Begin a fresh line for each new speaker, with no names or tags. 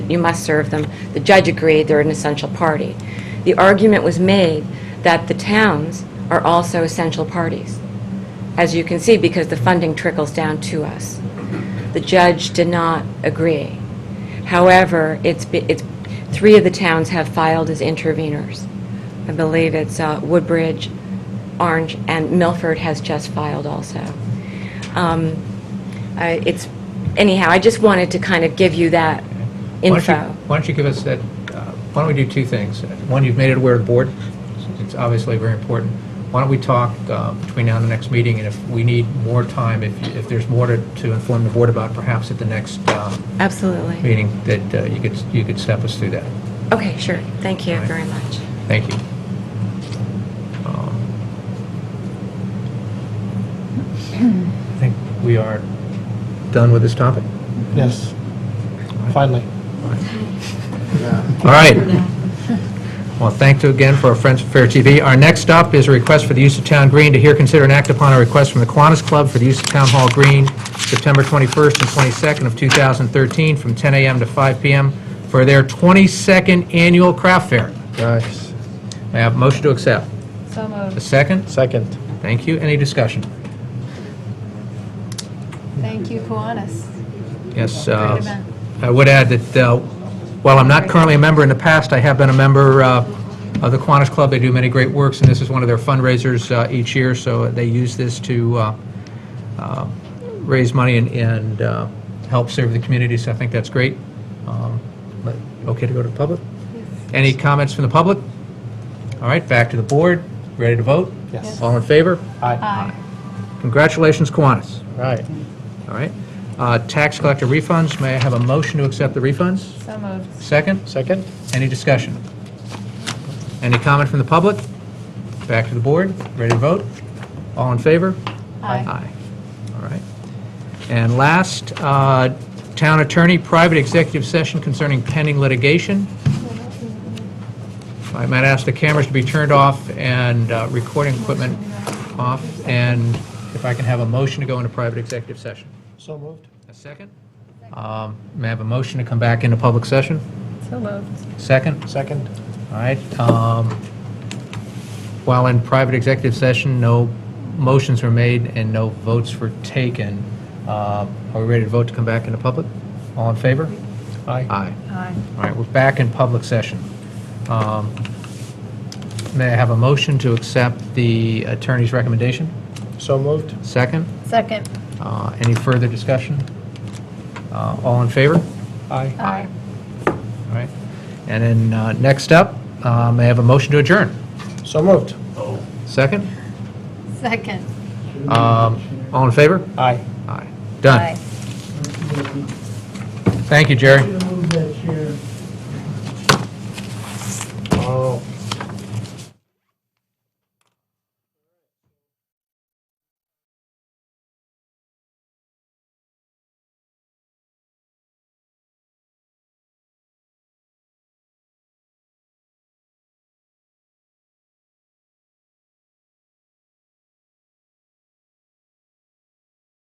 you must serve them. The judge agreed, they're an essential party. The argument was made that the towns are also essential parties, as you can see, because the funding trickles down to us. The judge did not agree. However, it's, be- it's, three of the towns have filed as interveners. I believe it's uh, Woodbridge, Orange, and Milford has just filed also. Um, I- It's, anyhow, I just wanted to kind of give you that
Why don't you-
info.
Why don't you give us that, uh, why don't we do two things? One, you've made it aware of the board, it's obviously very important. Why don't we talk uh, between now and the next meeting, and if we need more time, if if there's more to to inform the board about, perhaps at the next uh,
Absolutely.
meeting, that uh, you could, you could step us through that.
Okay, sure. Thank you
All right.
very much.
Thank you. Um, I think we are done with this topic.
Yes, finally.
All right. Well, thank you again for our friends from Fair TV. Our next up is a request for the use of town green to hear, consider, and act upon a request from the Kiwanis Club for the use of town hall green September 21st and 22nd of 2013 from 10 a.m. to 5 p.m. for their 22nd annual craft fair.
Nice.
May I have a motion to accept? A second?
Second.
Thank you. Any discussion?
Thank you, Kiwanis.
Yes, uh,
Great event.
I would add that uh, while I'm not currently a member, in the past, I have been a member uh, of the Kiwanis Club. They do many great works, and this is one of their fundraisers uh, each year, so they use this to uh, uh, raise money and- and uh, help serve the community, so I think that's great. Um, but- Okay to go to the public? Any comments from the public? All right, back to the board. Ready to vote?
Yes.
All in favor?
Aye.
Aye.
Congratulations, Kiwanis.
Right.
All right. Uh, Tax collector refunds, may I have a motion to accept the refunds?
So moved.
Second,
Second?
any discussion? Any comment from the public? Back to the board, ready to vote? All in favor?
Aye.
All right. And last, uh, town attorney, private executive session concerning pending litigation. I might ask the cameras to be turned off and uh, recording equipment off, and if I can have a motion to go into private executive session.
So moved.
A second? Um, May I have a motion to come back into public session?
So moved.
Second?
Second?
All right. um, While in private executive session, no motions were made and no votes were taken. Uh, Are we ready to vote to come back into public? All in favor?
Aye.
Aye.
Aye.
All right, we're back in public session. Um, May I have a motion to accept the attorney's recommendation?
So moved?
Second?
Second.
Uh, Any further discussion? Uh, All in favor?
Aye.
Aye.
All right. And then uh, next up, um, I have a motion to adjourn.
So moved?
Second?
Second.
Um, All in favor?
Aye.
Aye. Done. Thank you, Jerry.
Move that chair.
Oh.